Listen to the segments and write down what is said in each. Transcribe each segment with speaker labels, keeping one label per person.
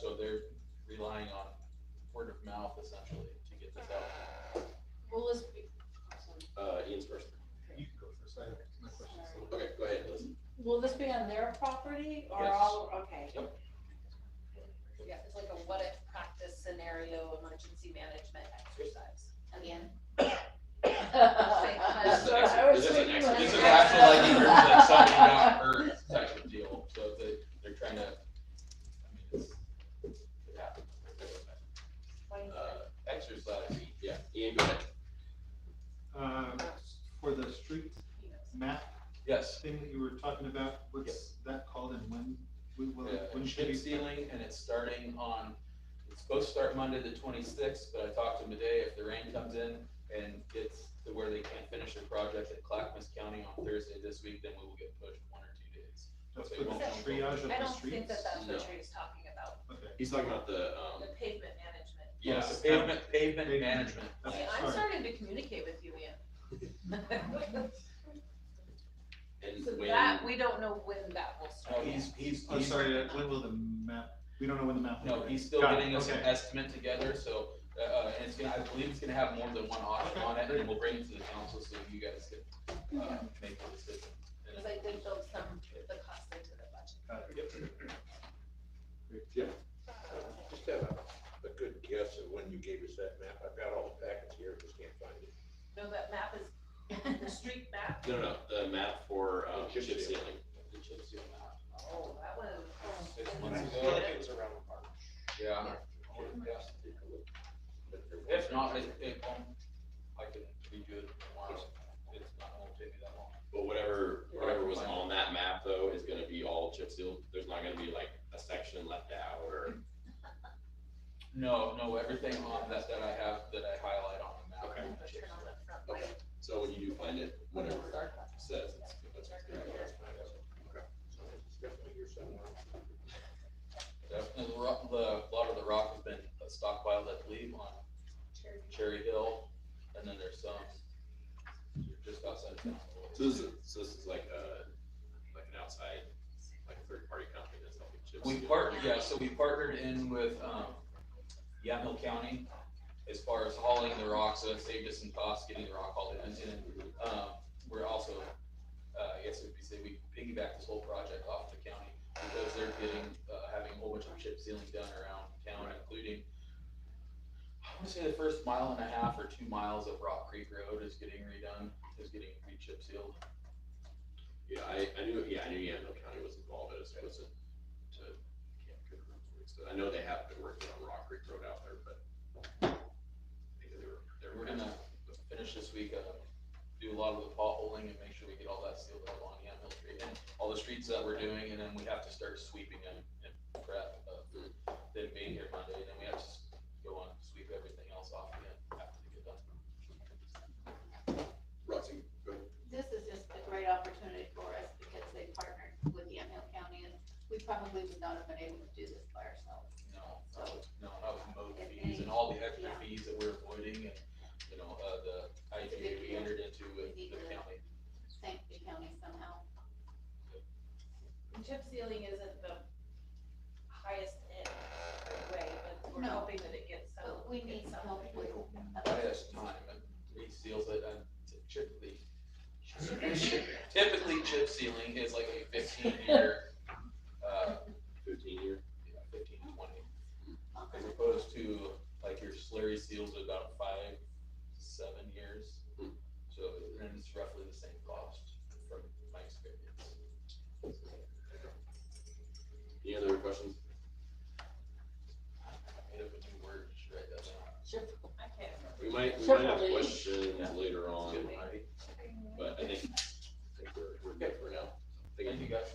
Speaker 1: so they're relying on word of mouth essentially to get this out.
Speaker 2: Well, let's,
Speaker 3: Uh, Ian's first.
Speaker 4: You can go first, I have my questions.
Speaker 3: Okay, go ahead, listen.
Speaker 2: will this be on their property or
Speaker 3: Yes.
Speaker 2: all, okay.
Speaker 5: Yeah, it's like a what if practice scenario, emergency management exercise. Again.
Speaker 3: This is
Speaker 2: So
Speaker 3: an
Speaker 2: I
Speaker 3: actual-
Speaker 2: was
Speaker 3: this is an
Speaker 2: thinking
Speaker 3: actual-
Speaker 2: like-
Speaker 1: This is actually like, in terms of like something got hurt type of deal, so they, they're trying to, I mean, it's, it happens. Uh, exercise, yeah,
Speaker 3: Ian, go ahead.
Speaker 4: Uh, For the street map
Speaker 1: yes.
Speaker 4: thing that you were talking about, what's that called and when, when,
Speaker 1: Uh,
Speaker 4: will- when should
Speaker 1: Chip
Speaker 4: we?
Speaker 1: sealing and it's starting on, it's supposed to start Monday the twenty-sixth, but I talked to them today, if the rain comes in and gets to where they can't finish their project at Clackamas County on Thursday this week, then we will get pushed one or two days.
Speaker 4: That's
Speaker 1: They
Speaker 4: for the
Speaker 1: won't
Speaker 5: come.
Speaker 4: triage
Speaker 3: Uh,
Speaker 4: of
Speaker 5: I
Speaker 4: the
Speaker 5: don't think
Speaker 4: streets?
Speaker 5: that that's
Speaker 1: No.
Speaker 5: what Trey's talking about,
Speaker 4: Okay,
Speaker 3: He's talking about the,
Speaker 5: the
Speaker 3: um,
Speaker 5: pavement management.
Speaker 1: Yeah,
Speaker 4: Yes.
Speaker 1: pavement, pavement
Speaker 4: Pavement.
Speaker 1: management.
Speaker 4: that's,
Speaker 5: See, I'm
Speaker 4: Oh, sorry.
Speaker 5: starting to communicate with you, Ian.
Speaker 3: and
Speaker 5: So
Speaker 3: when,
Speaker 5: that, we don't know when that will
Speaker 1: No,
Speaker 3: Oh,
Speaker 5: start.
Speaker 1: Oh, he's, he's,
Speaker 4: I'm
Speaker 1: he's,
Speaker 4: sorry, uh, when will the map, we don't know when the map. will
Speaker 1: no,
Speaker 4: be.
Speaker 1: he's still
Speaker 4: Got it,
Speaker 1: getting us an
Speaker 4: okay.
Speaker 1: estimate together, so, uh, uh, and it's gonna, I believe it's gonna have more than one option on it, and we'll bring it to the council so you guys can, uh, make the decision.
Speaker 5: Because I did build some, of the cost into the budget.
Speaker 4: Got it.
Speaker 6: Yeah. I Just have a, a good guess of when you gave us that map. I've got all the packets here, just can't find it.
Speaker 5: No, that map is, the street map,
Speaker 3: no, no, no, the map for, um,
Speaker 6: Chip
Speaker 3: chip
Speaker 6: seal.
Speaker 3: sealing.
Speaker 1: The chip seal map.
Speaker 5: oh, that was.
Speaker 1: Six
Speaker 5: oh,
Speaker 1: months
Speaker 5: that's
Speaker 1: ago.
Speaker 5: good.
Speaker 6: was around March.
Speaker 1: Yeah. Yeah. If not, it,
Speaker 6: it-
Speaker 1: it won't, I can redo it tomorrow, it's not, it won't take me that long.
Speaker 3: But whatever, whatever was on that map though, is gonna be all chip sealed. There's not gonna be like a section left out or,
Speaker 1: No, no, everything on that, that I have, that I highlight on the map.
Speaker 3: Okay.
Speaker 1: I'm gonna
Speaker 5: Turn
Speaker 1: chip seal.
Speaker 5: on the front
Speaker 3: Okay.
Speaker 5: light.
Speaker 3: so when you do find it, whatever it
Speaker 5: Dark.
Speaker 3: says, it's, that's what's gonna be.
Speaker 6: Definitely here somewhere.
Speaker 1: Definitely, the rock, the, a lot of the rock has been stockpiled, I believe, on
Speaker 5: Cherry.
Speaker 1: Cherry Hill, and then there's some just outside of town.
Speaker 3: So this is, so this is like a, like an outside, like a third party company that's helping chip
Speaker 1: We
Speaker 3: seal.
Speaker 1: partnered, yeah, so we partnered in with, um, Yamhill County as far as hauling the rock, so it saved us some costs getting the rock hauled in. And then, um, we're also, uh, I guess it'd be, say, we piggyback this whole project off the county because they're getting, uh, having a whole bunch of chip sealing done around town,
Speaker 3: Right.
Speaker 1: including I wanna say the first mile and a half or two miles of Rock Creek Road is getting redone, is getting re-chip sealed.
Speaker 3: Yeah, I, I knew, yeah, I knew Yamhill County was involved, I just wasn't to, can't remember. So I know they have been working on Rock Creek Road out there, but I think they were, they were.
Speaker 1: We're gonna finish this week, uh, do a lot of the potholing and make sure we get all that sealed up on Yamhill Street and all the streets that we're doing, and then we have to start sweeping and, and prep uh, of them being here Monday, and then we have to s- go on, sweep everything else off again after they get done.
Speaker 3: Roxy, go ahead.
Speaker 7: this is just a great opportunity for us because they partnered with Yamhill County and we probably would not have been able to do this by ourselves.
Speaker 1: No, that was, no, that was mowed fees and all the extra fees that we're avoiding and, you know, uh, the IGA we entered into with the county.
Speaker 7: Thank the county somehow.
Speaker 5: Chip sealing isn't the highest end right way, but we're
Speaker 7: No.
Speaker 5: hoping that it gets some.
Speaker 7: But we need
Speaker 5: gets
Speaker 7: some
Speaker 5: some.
Speaker 7: help with.
Speaker 1: Last time, and reseals it, and typically, typically chip sealing is like a fifteen year, uh,
Speaker 3: fifteen year.
Speaker 1: you know, fifteen to twenty, as opposed to like your slurry seals at about five, seven years. So, and it's roughly the same cost from my experience.
Speaker 3: Any other questions?
Speaker 1: I made up a new word, just write that down.
Speaker 5: I can't remember.
Speaker 3: We might, we might have
Speaker 2: Separately.
Speaker 3: questions
Speaker 1: Yeah.
Speaker 3: later on,
Speaker 1: Good, alright.
Speaker 3: but I think, I think we're, we're good for now.
Speaker 1: Thank you guys.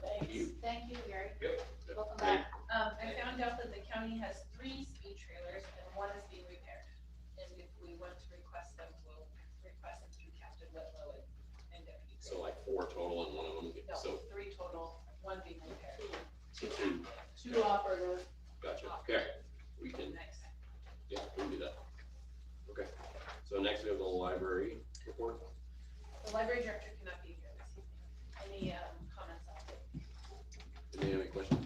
Speaker 3: Thank you.
Speaker 7: Thank you, Gary.
Speaker 1: Yep.
Speaker 7: Welcome back.
Speaker 5: Um, I found out that the county has three speed trailers and one is being repaired. And if we want to request them, we'll request them through Captain Whitlow and, and Deputy.
Speaker 3: So like four total and one of them,
Speaker 5: Gray. No,
Speaker 3: so,
Speaker 5: three total, one being repaired.
Speaker 3: so two,
Speaker 2: Two operators.
Speaker 3: gotcha, okay, we can,
Speaker 5: Next.
Speaker 3: yeah, we can do that. Okay, so next we have the library report.
Speaker 5: The library director cannot be here this evening. Any, um, comments on it?
Speaker 3: Any other questions?